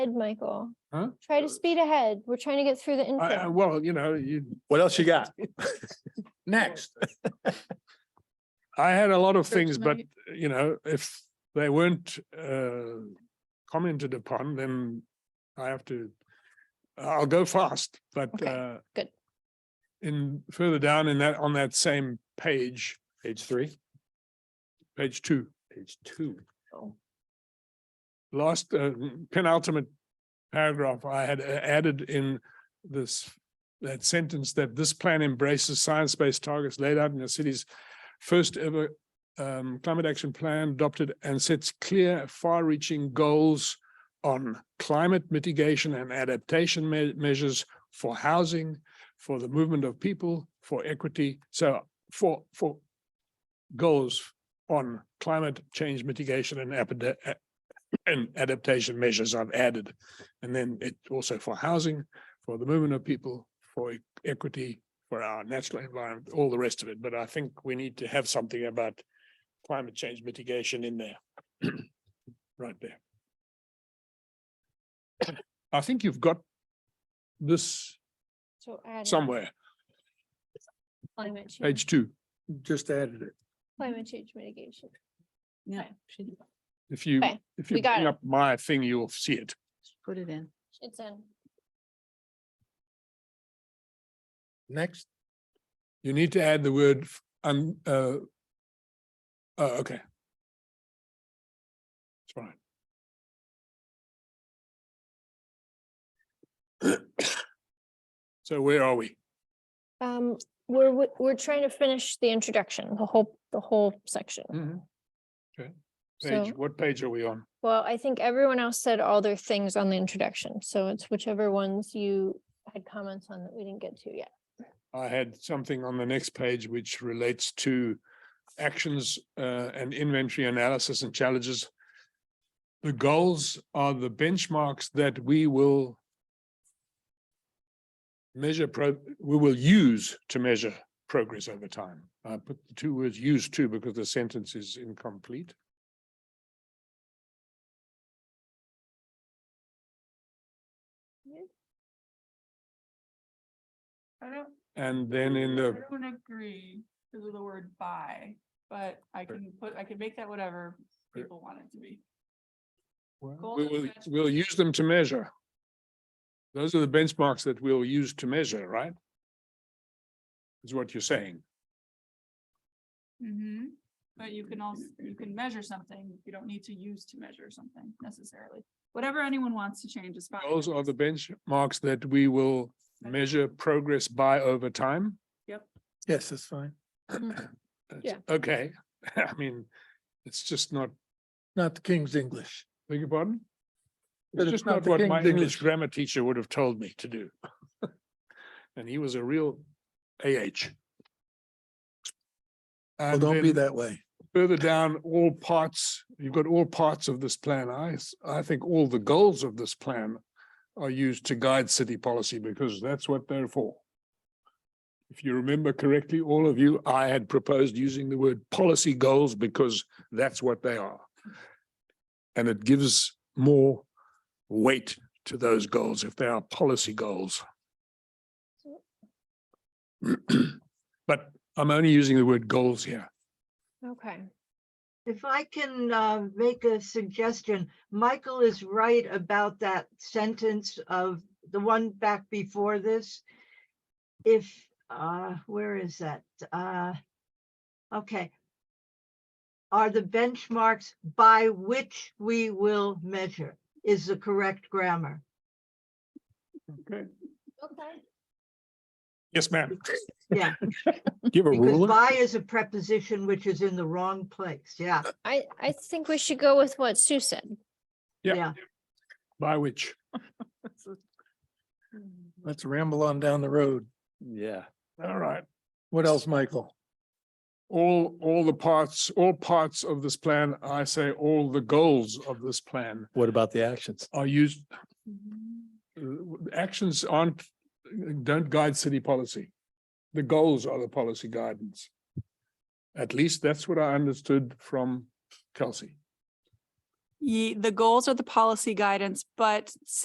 ahead, Michael. Huh? Try to speed ahead. We're trying to get through the I, I, info. well, you know, you, What else you got? next. I had a lot of Sure, things, tonight. but you know, if they weren't uh commented upon, then I have to, I'll go fast, but Okay, uh. good. In further down in that, on that same page, Page three, page two, page two. last uh, penultimate paragraph, I had uh, added in this, that sentence that this plan embraces science-based targets laid out in the city's first ever um, climate action plan adopted and sets clear, far-reaching goals on climate mitigation and adaptation me- measures for housing, for the movement of people, for equity. So for, for goals on climate change mitigation and apida- a- and adaptation measures I've added. And then it also for housing, for the movement of people, for e- equity, for our natural environment, all the rest of it. But I think we need to have something about climate change mitigation in there. Right there. I think you've got this So add somewhere, climate change, page two. Just added it. climate change mitigation. Yeah, Okay. she did. If you, Okay, if we you got bring it. up my thing, you'll see it. She put it in. It's in. Next. You need to add the word, f- um, uh. Oh, okay. It's fine. So where are we? Um, we're, w- we're trying to finish the introduction, the whole, the whole section. Page, So- what Mm-hmm. page are we on? Well, I think everyone else said all their things on the introduction, so it's whichever ones you had comments on that we didn't get to yet. I had something on the next page which relates to actions uh, and inventory analysis and challenges. The goals are the benchmarks that we will measure, pro- we will use to measure progress over time. I put the two words use to because the sentence is incomplete. I don't, And then in I the, don't agree to the word by, but I can put, I can make that whatever Right. people want it to be. we will, we'll use them to measure. Those are the benchmarks that we'll use to measure, right? Is what you're saying. Mm-hmm. But you can also, you can measure something, you don't need to use to measure something necessarily. Whatever anyone wants to change is fine. Those are the benchmarks that we will measure progress by over time. Yes, that's fine. That's- Yeah. Okay, I mean, it's just not, Not the King's English. beg your pardon? It's But it's just not not the what King's my English English. grammar teacher would have told me to do. And he was a real AH. Well, And don't be then that way. further down, all parts, you've got all parts of this plan. I, s- I think all the goals of this plan are used to guide city policy because that's what they're for. If you remember correctly, all of you, I had proposed using the word policy goals because that's what they are. And it gives more weight to those goals if they are policy goals. But I'm only using the word goals here. Okay, If I can uh, make a suggestion, Michael is right about that sentence of the one back before this. If, uh, where is that? Uh, Okay. Are the benchmarks by which we will measure is the correct grammar? okay. Yes, ma'am. Yeah, Do you have a because ruler? by is a preposition which is in the wrong place. Yeah, I, I think we should go with what Sue said. Yeah. yeah. By which? Let's ramble on down the road. Yeah. All right. What else, Michael? All, all the parts, all parts of this plan, I say all the goals of this plan What about the actions? are used. Mm-hmm. uh, Actions aren't, don't guide city policy. The goals are the policy guidance. At least that's what I understood from Kelsey. Ye, the goals are the policy guidance, but